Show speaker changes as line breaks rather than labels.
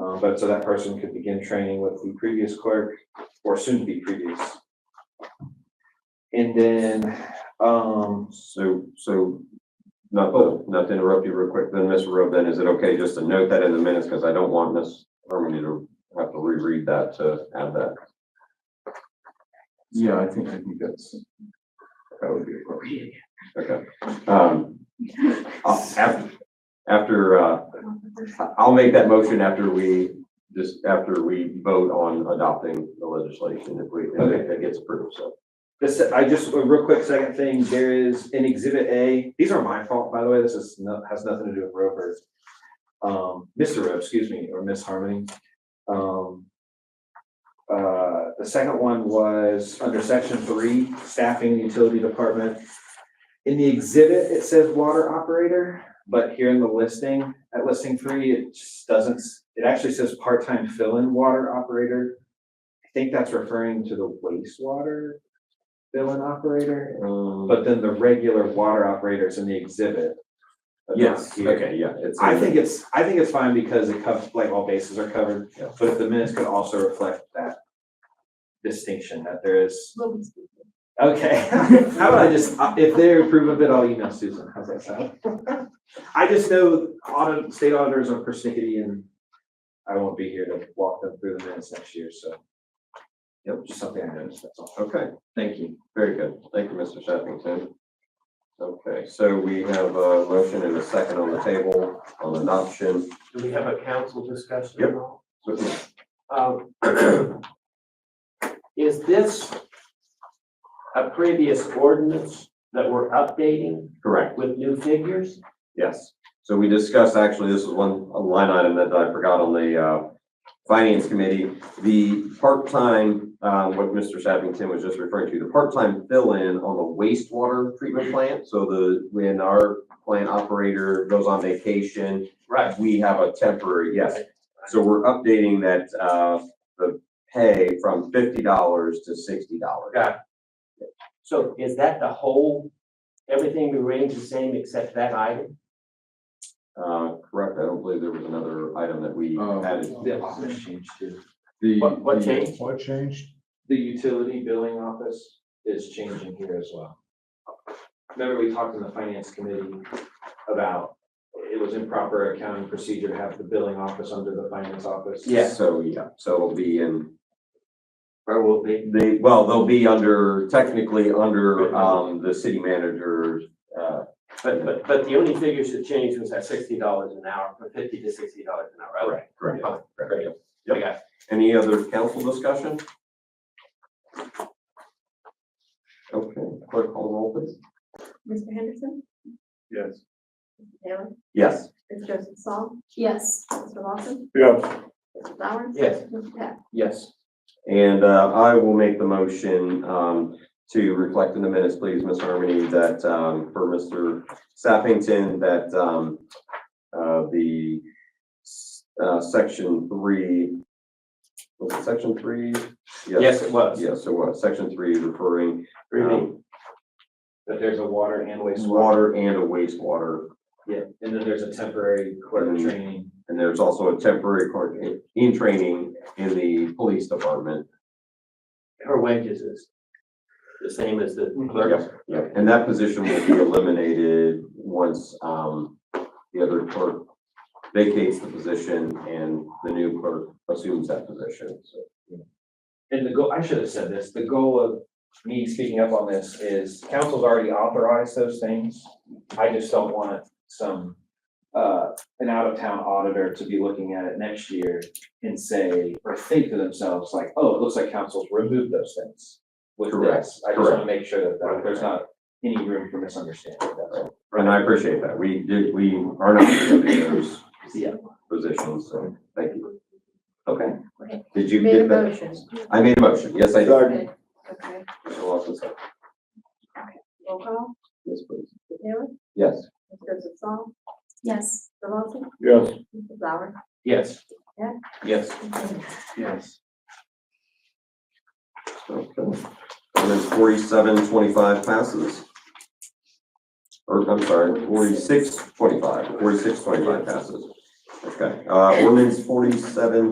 Uh, but so that person could begin training with the previous clerk or soon to be previous. And then, um,
So, so, not, to- not to interrupt you real quick, then, Mr. Rowe, then is it okay just to note that in the minutes, because I don't want Ms. Harmony to have to reread that to add that?
Yeah, I think, I think that's, that would be appropriate.
Okay. Um, I'll- after, after, uh, I'll make that motion after we, just after we vote on adopting the legislation, if we, if it gets approved, so.
This, I just, a real quick second thing, there is in exhibit A, these are my fault, by the way, this is, no- has nothing to do with Rover. Um, Mr. Rowe, excuse me, or Miss Harmony. Um. Uh, the second one was under section three, staffing utility department. In the exhibit, it says water operator, but here in the listing, at listing three, it just doesn't, s- it actually says part-time fill-in water operator. I think that's referring to the wastewater fill-in operator,
But,
but then the regular water operators in the exhibit. but not
yes,
here.
okay, yeah, it's.
I think it's, I think it's fine because it covers, like, all bases are covered,
Yeah.
but if the minutes could also reflect that distinction that there is, okay. How about I just, uh, if they approve of it, I'll email Susan, how's that sound? I just know audit, state auditors are persnickety and I won't be here to walk them through the minutes next year, so. Yep, just something I noticed, that's all.
Okay, thank you. Very good. Thank you, Mr. Sheffington. Okay, so we have a motion and a second on the table on adoption.
Do we have a council discussion?
Yep.
at all?
So,
Um, Is this a previous ordinance that we're updating
Correct,
with new figures?
yes. So we discussed, actually, this is one a line item that I forgot on the uh, Finance Committee. The part-time, um, what Mr. Sheffington was just referring to, the part-time fill-in on the wastewater treatment plant. So the, when our plant operator goes on vacation,
Right.
We have a temporary, yes. So we're updating that, uh, the pay from fifty dollars to sixty dollars.
Got So is that the whole, everything remains the same except that item?
Uh, correct, I don't believe there was another item that we
Oh.
added.
The office changed too.
The-
What, what
the-
changed?
What changed?
The utility billing office is changing here as well. Remember, we talked in the finance committee about it was improper accounting procedure to have the billing office under the finance office?
Yeah.
So, yeah, so it'll be in,
Or will be?
they, well, they'll be under, technically under, um, the city manager's, uh,
But, but, but the only figures that changed was that sixty dollars an hour, from fifty to sixty dollars an hour, right?
correct, correct.
Oh,
correct.
I got it.
Any other council discussion? Okay, clerk call the roll, please.
Mr. Henderson?
Yes.
Mr. Taylor?
Yes.
Mr. Joseph Saul?
Yes.
Mr. Lawson?
Yeah.
Mr. Flowers?
Yes.
Mr. Peck?
Yes.
And uh, I will make the motion um, to reflect in the minutes, please, Ms. Harmony, that um, for Mr. Sappington, that um, uh, the uh, section three, was it section three?
Yes, it was.
Yes, so what, section three referring
Really?
um,
That there's a water and wastewater,
water and a wastewater.
yeah, and then there's a temporary clerk
Mhm.
training.
And there's also a temporary clerk in- in training in the police department.
Her wages is the same as the clerk's.
Yep, yep, and that position will be eliminated once, um, the other clerk vacates the position and the new clerk assumes that position, so.
And the goal, I should have said this, the goal of me speaking up on this is council's already authorized those things. I just don't want some, uh, an out-of-town auditor to be looking at it next year and say, or think to themselves like, oh, it looks like council's removed those things. With
Correct,
this, I just want to make sure that that there's not any room for misunderstanding. That's all.
And I appreciate that, we did, we are not removing those
Yeah.
positions, so, thank you.
Okay.
Did you
Made a
get that?
motion.
I made a motion, yes, I did.
Okay. Okay.
Mr. Lawson, second.
Roll call.
Yes, please.
Mr. Taylor?
Yes,
Mr. Joseph Saul?
Yes.
Mr. Lawson?
Yes.
Mr. Flowers?
Yes.
Yeah.
Yes.
Yes.
okay. And then forty-seven twenty-five passes. Or, I'm sorry, forty-six twenty-five. Forty-six twenty-five passes. Okay, uh, ordinance forty-seven